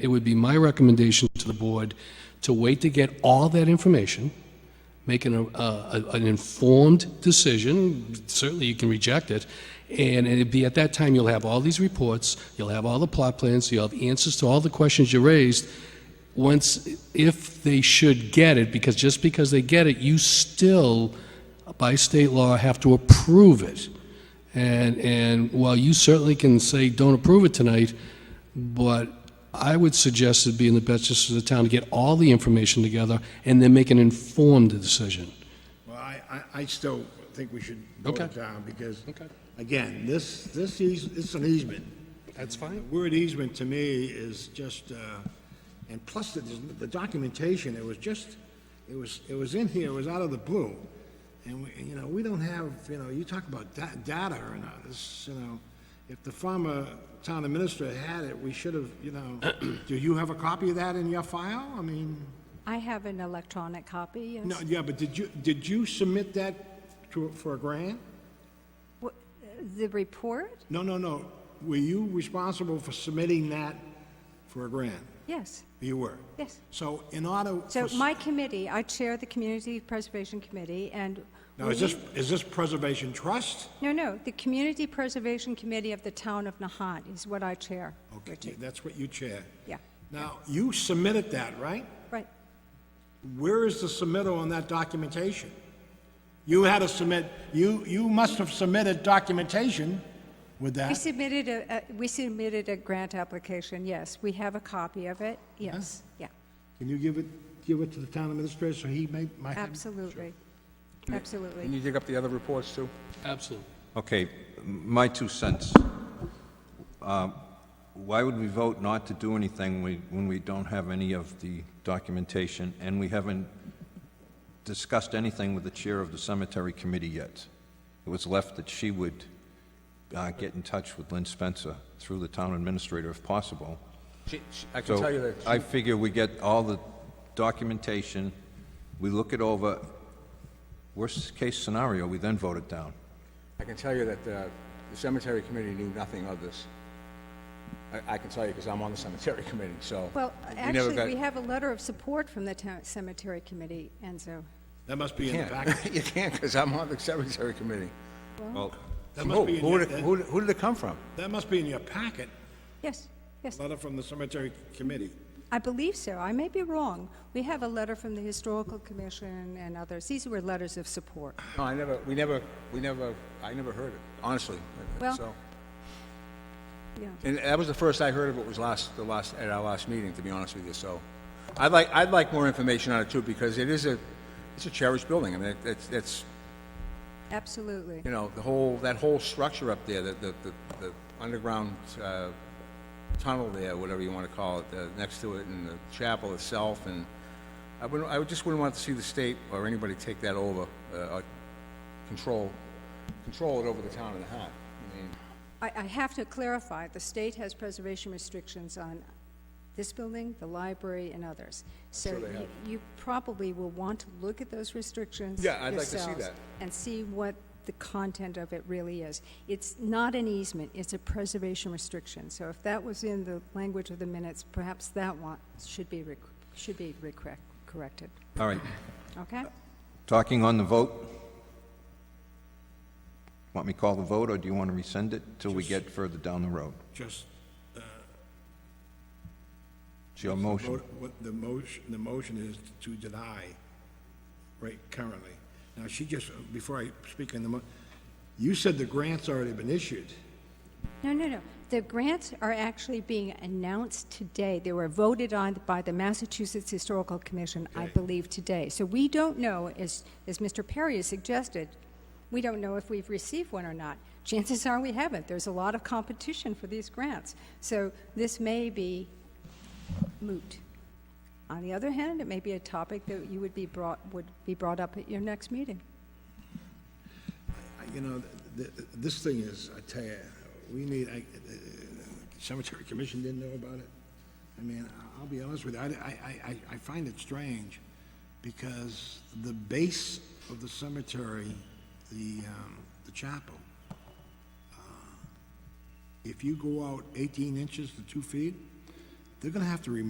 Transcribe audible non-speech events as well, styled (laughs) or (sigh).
It would be my recommendation to the board to wait to get all that information, make an, uh, a- an informed decision, certainly you can reject it, and it'd be at that time, you'll have all these reports, you'll have all the plot plans, you'll have answers to all the questions you raised. Once, if they should get it, because just because they get it, you still, by state law, have to approve it. And, and while you certainly can say, don't approve it tonight, but I would suggest it'd be in the best interest of the town to get all the information together and then make an informed decision. Well, I, I, I still think we should vote Okay. it down, because, Okay. again, this, this eas, it's an easement. That's fine. The Word easement to me is just, uh, and plus the, the documentation, it was just, it was, it was in here, it was out of the blue. And we, you know, we don't have, you know, you talk about da- data or not, this, you know, if the former town administrator had it, we should have, you know, (coughs) do you have a copy of that in your file? I mean, I have an electronic copy, yes. no, yeah, but did you, did you submit that to, for a grant? Wha- The report? No, no, no. Were you responsible for submitting that for a grant? Yes, You were? yes. So in order. So for s- my committee, I chair the Community Preservation Committee, and... Now, we is this, need- is this Preservation Trust? No, no, the Community Preservation Committee of the Town of Nahant is what I chair, Okay, Richard. that's what you chair. Yeah, Now, you submitted that, right? right. Where is the submittal on that documentation? You had to submit, you, you must have submitted documentation with We that. submitted a, a- we submitted a grant application, yes. We have a copy of it, Uh-huh. yes, yeah, Can you give it, give it to the town administrator so he may, might have? absolutely, absolutely. Can you dig up the other reports, too? Absolutely. Okay, m- my two cents. Uh, Why would we vote not to do anything we- when we don't have any of the documentation, and we haven't discussed anything with the chair of the cemetery committee yet? It was left that she would uh, get in touch with Lynn Spencer through the town administrator if possible. She- she- I can So tell you that I figure we get all the documentation, we look it over, worst-case scenario, we then vote it down. I can tell you that uh, the cemetery committee knew nothing of this. I- I can tell you because I'm on the cemetery (laughs) committee, so. Well, we never actually, got- we have a letter of support from the town Cemetery Committee, and so... That must be in the packet. can't. (laughs) (laughs) You can't because I'm on the cemetery committee. Well, That Who must be in who your, did it- who that did who did it come from? that must be in your packet, Yes, yes, letter from the cemetery committee. I believe so. I may be wrong. We have a letter from the Historical Commission and others. These were letters of support. No, I never, we never, we never, I never heard it, honestly. Well- So- Yeah. And that was the first I heard of it was last, the last, at our last meeting, to be honest with you, so. I'd like, I'd like more information on it too, because it is a, it's a cherished building. I mean, it- it's, it's, Absolutely. you know, the whole, that whole structure up there, the, the, the- the underground, uh, tunnel there, whatever you wanna call it, uh, next to it, and the chapel itself, and I wouldn't, I would just wouldn't want to see the state or anybody take that over, uh, or control, control it over the town of the Hat. I mean, I, I have to clarify, the state has preservation restrictions on this building, the library, and others. So you- you probably will want to look at those restrictions Yeah, I'd like to see yourselves that. And see what the content of it really is. It's not an easement, it's a preservation restriction. So if that was in the language of the minutes, perhaps that one should be, rec- should be recorrect- corrected, all right. okay? Uh, Talking on the vote? Want me to call the vote, or do you want to rescind it till we get further down the road? Just It's your motion. Vote- What the motion, the motion is to deny right currently. Now, she just, before I speak on the mo, you said the grant's already been issued. No, no, no. The grants are actually being announced today. They were voted on by the Massachusetts Historical Commission, I believe, today. So we don't know, as, as Mr. Perry has suggested, we don't know if we've received one or not. Chances are we haven't. There's a lot of competition for these grants. So this may be moot. On the other hand, it may be a topic that you would be brought, would be brought up at your next meeting. I- You know, th- th- this thing is, I tell you, we need, I- uh, Cemetery Commission didn't know about it. I mean, I- I'll be honest with you, I, I- I- I find it strange because the base of the cemetery, the, um, the chapel, uh, if you go out 18 inches to two feet, they're gonna have to remove